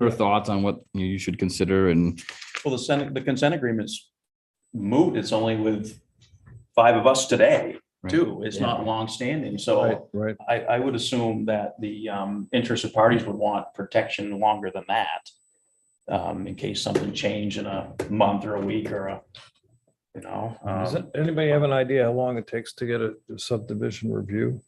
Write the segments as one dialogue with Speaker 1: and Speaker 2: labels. Speaker 1: her thoughts on what you know, you should consider and
Speaker 2: Well, the Senate, the consent agreement's moot. It's only with five of us today, too. It's not longstanding. So
Speaker 3: Right.
Speaker 2: I, I would assume that the um, interested parties would want protection longer than that. Um, in case something changed in a month or a week or a, you know.
Speaker 3: Does
Speaker 2: um,
Speaker 3: it- anybody have an idea how long it takes to get a subdivision review?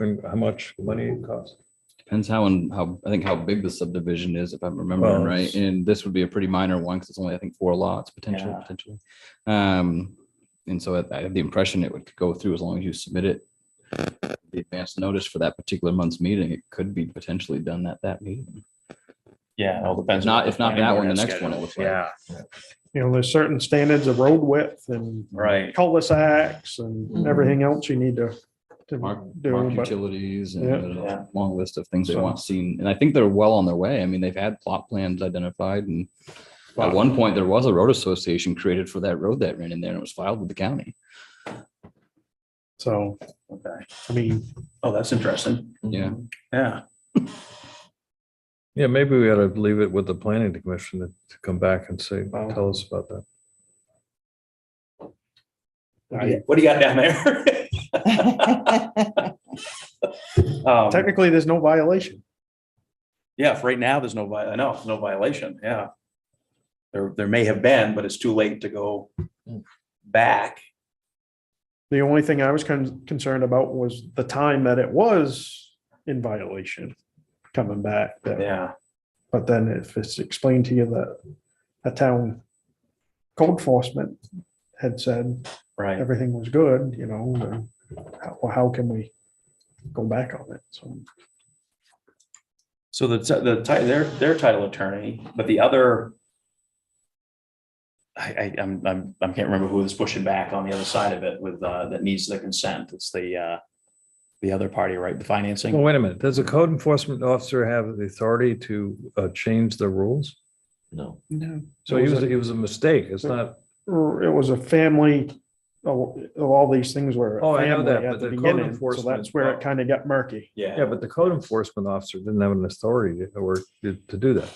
Speaker 3: And how much money it costs?
Speaker 1: depends how and how, I think how big the subdivision is, if I'm remembering
Speaker 3: Well,
Speaker 1: right.
Speaker 3: it's-
Speaker 1: And this would be a pretty minor one because it's only, I think, four lots potentially,
Speaker 2: Yeah.
Speaker 1: potentially. Um, and so I I have the impression it would go through as long as you submit it. The advance notice for that particular month's meeting, it could be potentially done at that meeting.
Speaker 2: Yeah, it all depends.
Speaker 1: If not-
Speaker 2: what the
Speaker 1: if not
Speaker 2: planning
Speaker 1: that
Speaker 2: board
Speaker 1: one, the
Speaker 2: has
Speaker 1: next one it
Speaker 2: scheduled.
Speaker 1: looks like.
Speaker 2: Yeah,
Speaker 4: you know, there's certain standards of road width and
Speaker 2: right.
Speaker 4: cul-de-sacs and
Speaker 1: Mhm.
Speaker 4: everything else you need to to
Speaker 1: Mark,
Speaker 4: do.
Speaker 1: mark
Speaker 4: but-
Speaker 1: utilities and
Speaker 4: Yeah.
Speaker 1: there's
Speaker 2: Yeah.
Speaker 1: a long list of things they
Speaker 4: So-
Speaker 1: want seen. And I think they're well on their way. I mean, they've had plot plans identified and at one point there was a road association created for that road that ran in there and it was filed with the county.
Speaker 4: So,
Speaker 2: Okay.
Speaker 4: I mean,
Speaker 2: Oh, that's interesting.
Speaker 1: Yeah.
Speaker 2: Yeah.
Speaker 3: Yeah, maybe we ought to leave it with the planning commission to to come back and say, tell us about that.
Speaker 2: What do you got down there? Um,
Speaker 4: technically, there's no violation.
Speaker 2: Yeah, if right now, there's no, vi- I know, no violation, yeah. There, there may have been, but it's too late to go back.
Speaker 4: The only thing I was con- concerned about was the time that it was in violation coming back. that-
Speaker 2: Yeah,
Speaker 4: But then if it's explained to you that a town code enforcement had said
Speaker 2: right.
Speaker 4: everything was good, you know, then how, well, how can we go back on it? So,
Speaker 2: So the, ti- the, ti- their, their title attorney, but the other. I, I, I'm, I'm, I can't remember who was pushing back on the other side of it with, uh, that needs the consent. It's the, uh, the other party, right? The
Speaker 3: Well,
Speaker 2: financing?
Speaker 3: wait a minute. Does a code enforcement officer have the authority to uh, change the rules? No.
Speaker 4: no.
Speaker 3: So it was, it was a mistake. It's not,
Speaker 4: or it was a family, of of all these things were. a
Speaker 3: Oh, I know
Speaker 4: family
Speaker 3: that,
Speaker 4: at
Speaker 3: but
Speaker 4: the
Speaker 3: the code
Speaker 4: beginning, So
Speaker 3: enforcement-
Speaker 4: that's where it kind of got murky.
Speaker 3: yeah, but the code enforcement officer didn't have an authority to- or to to do that.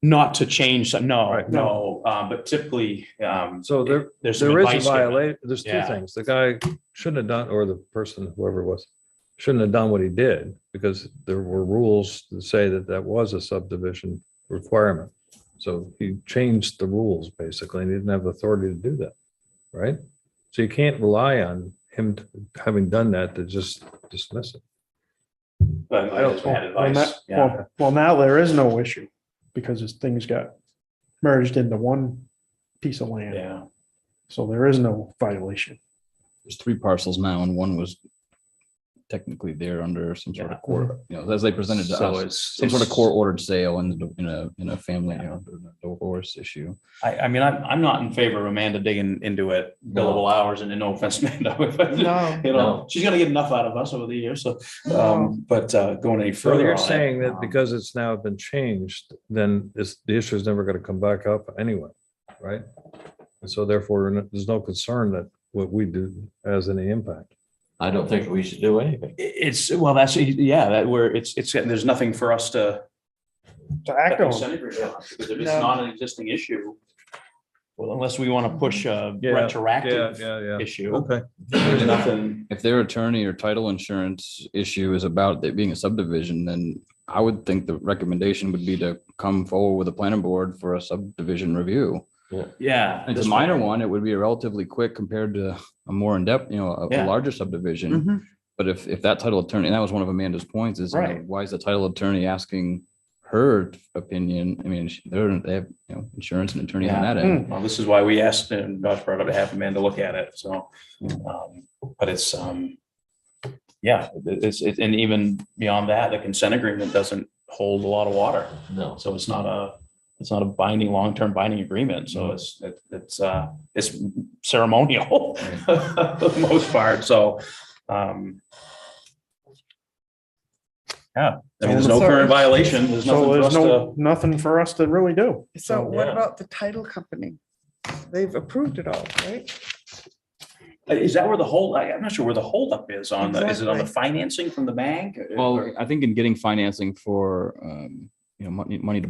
Speaker 2: Not to change, some- no,
Speaker 3: Right.
Speaker 2: no, um, but typically, um.
Speaker 3: So there-
Speaker 2: There's some
Speaker 3: There
Speaker 2: advice
Speaker 3: is a
Speaker 2: given.
Speaker 3: violation. There's two
Speaker 2: Yeah.
Speaker 3: things. The guy shouldn't have done, or the person, whoever it was, shouldn't have done what he did because there were rules to say that that was a subdivision requirement. So he changed the rules basically and he didn't have the authority to do that, right? So you can't rely on him t- having done that to just dismiss it.
Speaker 2: But I just had
Speaker 4: Well,
Speaker 2: advice,
Speaker 4: that-
Speaker 2: yeah.
Speaker 4: well- Well, now there is no issue because it's, things got merged into one piece of land.
Speaker 2: Yeah,
Speaker 4: So there is no violation.
Speaker 1: There's three parcels now and one was technically there under some sort of court, you know, as they presented to
Speaker 2: so
Speaker 1: us.
Speaker 2: it's
Speaker 1: Some sort of
Speaker 2: it's-
Speaker 1: court ordered sale in, the- in a, in a family, you know, divorce issue.
Speaker 2: I, I mean, I'm, I'm not in favor of Amanda digging into it billable hours and no offense, Amanda. but,
Speaker 4: No.
Speaker 2: You know, she's gonna get enough out of us over the years, so, um, but, uh, going any
Speaker 3: So
Speaker 2: further.
Speaker 3: you're
Speaker 2: on it,
Speaker 3: saying that
Speaker 2: um,
Speaker 3: because it's now been changed, then it's, the issue is never going to come back up anyway, right? And so therefore, there's no concern that what we do has any impact.
Speaker 5: I don't think we should do anything.
Speaker 2: i- It's, well, that's, yeah, that where it's, it's, there's nothing for us to.
Speaker 4: To act on.
Speaker 2: consent agreement on, Because if it's
Speaker 4: No.
Speaker 2: not an existing issue. Well, unless we wanna push a
Speaker 3: Yeah,
Speaker 2: retroactive
Speaker 3: yeah,
Speaker 2: issue,
Speaker 3: Okay.
Speaker 2: there's nothing.
Speaker 1: if their attorney or title insurance issue is about it being a subdivision, then I would think the recommendation would be to come forward with a planning board for a subdivision review.
Speaker 2: Yeah.
Speaker 1: If It's a minor one, it would be relatively quick compared to a more in-depth, you know, a- a
Speaker 2: Yeah. Mm-hmm.
Speaker 1: larger subdivision. But if, if that title attorney, and that was one of Amanda's points, is you know,
Speaker 2: Right.
Speaker 1: why is the title attorney asking her opinion? I mean, she- they're, they have, you know, insurance and attorney on
Speaker 2: Yeah.
Speaker 1: that end.
Speaker 4: Hmm.
Speaker 2: Well, this is why we asked and Josh brought up to have Amanda look at it, so, um, but it's, um. Yeah, it- it's, it, and even beyond that, the consent agreement doesn't hold a lot of water,
Speaker 5: No.
Speaker 2: so it's not a, it's not a binding, long-term binding agreement, so it's, it- it's, uh, it's ceremonial. For the most part, so, um. Yeah, I mean, there's no current violation, there's nothing
Speaker 4: So
Speaker 2: for us
Speaker 4: there's
Speaker 2: to.
Speaker 4: no, nothing for us to really do.
Speaker 6: So what
Speaker 2: Yeah.
Speaker 6: about the title company? They've approved it all, right?
Speaker 2: Is that where the hold, I, I'm not sure where the holdup is on the, is it on the
Speaker 6: Exactly.
Speaker 2: financing from the bank? or-
Speaker 1: Well, I think in getting financing for, um, you know, money, money to